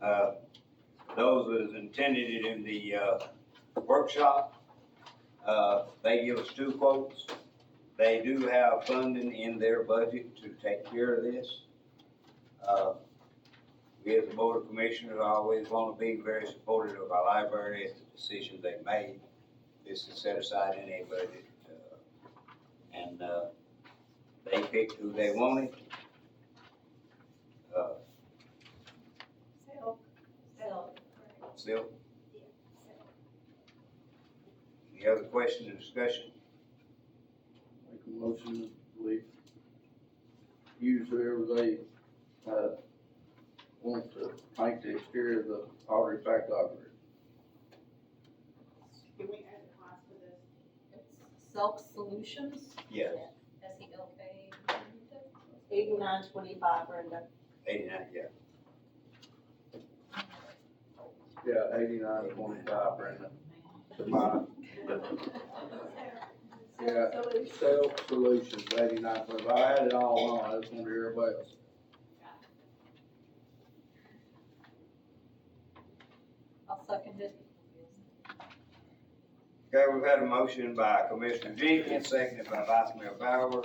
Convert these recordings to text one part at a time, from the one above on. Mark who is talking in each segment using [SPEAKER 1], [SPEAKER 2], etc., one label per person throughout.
[SPEAKER 1] Uh, Those was intended in the uh, workshop. Uh, They give us two quotes. They do have funding in their budget to take care of this. Uh, We as a board of commissioners always want to be very supportive of our library as the decisions they made. This is set aside in a budget. uh, And uh, they picked who they wanted. Uh,
[SPEAKER 2] Silk. Silk.
[SPEAKER 1] Still,
[SPEAKER 2] Silk.
[SPEAKER 1] any other questions or discussion?
[SPEAKER 3] Make a motion that we use whoever they, uh, want to paint the exterior of the Audrey Pack Library.
[SPEAKER 4] Can we add a cost for this?
[SPEAKER 5] It's Self Solutions,
[SPEAKER 1] Yes,
[SPEAKER 5] S E L K.
[SPEAKER 6] Eighty-nine twenty-five, Brenda.
[SPEAKER 1] eighty-nine, yeah.
[SPEAKER 3] Yeah, eighty-nine twenty-five, Brenda. The bottom. Yeah, Self Solutions, eighty-nine twenty-five. I had it all on, I just wanted everybody else.
[SPEAKER 5] I'll second it.
[SPEAKER 1] Okay, we've had a motion by Commissioner Jenkins, seconded by Vice Mayor Bauer,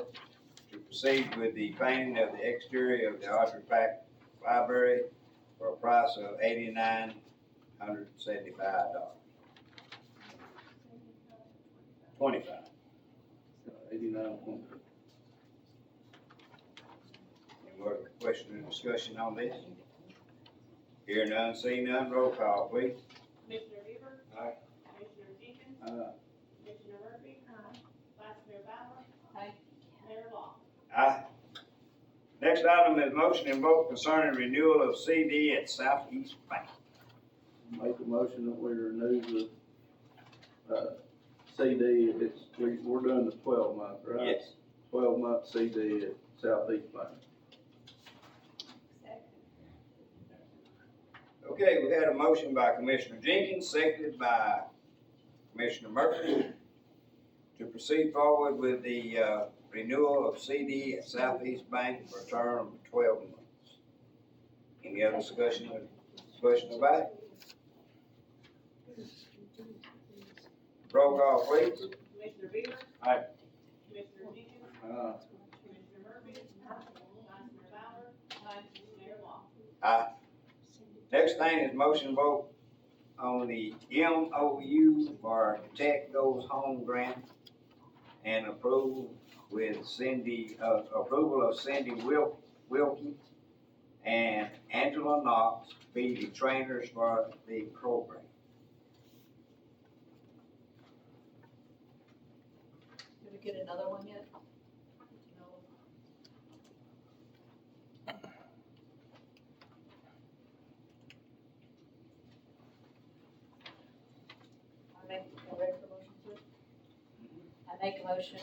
[SPEAKER 1] to proceed with the painting of the exterior of the Audrey Pack Library for a price of eighty-nine hundred seventy-five dollars. Twenty-five.
[SPEAKER 3] Eighty-nine twenty-five.
[SPEAKER 1] Any more question or discussion on this? Hear none, see none, roll call, please.
[SPEAKER 4] Commissioner Bieber,
[SPEAKER 1] Aye.
[SPEAKER 4] Commissioner Jenkins,
[SPEAKER 3] Uh,
[SPEAKER 4] Commissioner Murphy, Vice Mayor Bauer,
[SPEAKER 5] Aye.
[SPEAKER 4] Mayor Law.
[SPEAKER 1] Aye. Next item is motion and vote concerning renewal of CD at Southeast Bank.
[SPEAKER 3] make a motion that we renew the, uh, CD, it's, we, we're doing the twelve month, right? Twelve month CD at Southeast Bank.
[SPEAKER 1] Okay, we had a motion by Commissioner Jenkins, seconded by Commissioner Murphy to proceed forward with the, uh, renewal of CD at Southeast Bank for a term of twelve months. Any other discussion, discussion about it? Roll call, please.
[SPEAKER 4] Commissioner Bieber.
[SPEAKER 1] Aye.
[SPEAKER 4] Commissioner Jenkins,
[SPEAKER 3] Uh,
[SPEAKER 4] Commissioner Murphy, Vice Mayor Bauer, Mayor Law.
[SPEAKER 1] Next thing is motion vote on the MOU for Tech Goes Home Grant and approval with Cindy, uh, approval of Cindy Wil- Wilkie and Angela Knox be the trainers for the program.
[SPEAKER 5] Did we get another one yet? No. I make, am I ready for motion to? I make a motion,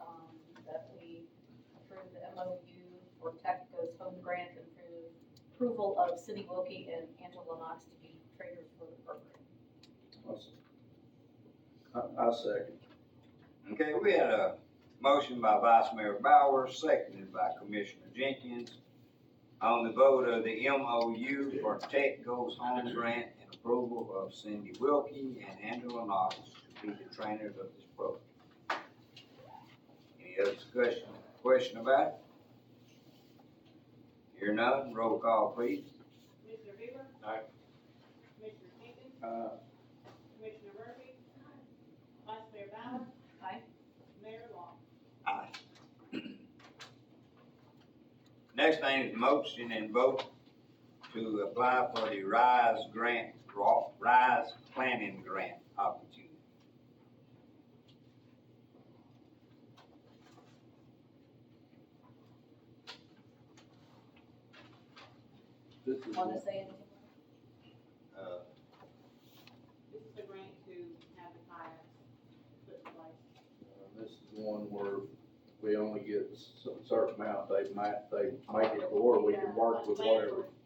[SPEAKER 5] um, that we approve the MOU for Tech Goes Home Grant and approve approval of Cindy Wilkie and Angela Knox to be trainers for the program.
[SPEAKER 3] I, I second.
[SPEAKER 1] Okay, we had a motion by Vice Mayor Bauer, seconded by Commissioner Jenkins on the vote of the MOU for Tech Goes Home Grant and approval of Cindy Wilkie and Angela Knox to be the trainers of this program. Any other discussion, question about it? Hear none, roll call please.
[SPEAKER 4] Commissioner Bieber.
[SPEAKER 1] Aye.
[SPEAKER 4] Commissioner Jenkins,
[SPEAKER 3] Uh,
[SPEAKER 4] Commissioner Murphy, Vice Mayor Bauer.
[SPEAKER 5] Aye.
[SPEAKER 4] Mayor Law.
[SPEAKER 1] Next thing is motion and vote to apply for the RISE grant, Ra- RISE planning grant opportunity.
[SPEAKER 3] this is,
[SPEAKER 5] Want to say anything?
[SPEAKER 1] Uh,
[SPEAKER 4] This is the grant to have the kayaks put in place.
[SPEAKER 3] uh, this is one where we only get a certain amount, they might, they make it, or we can work with whatever.
[SPEAKER 4] uh, uh,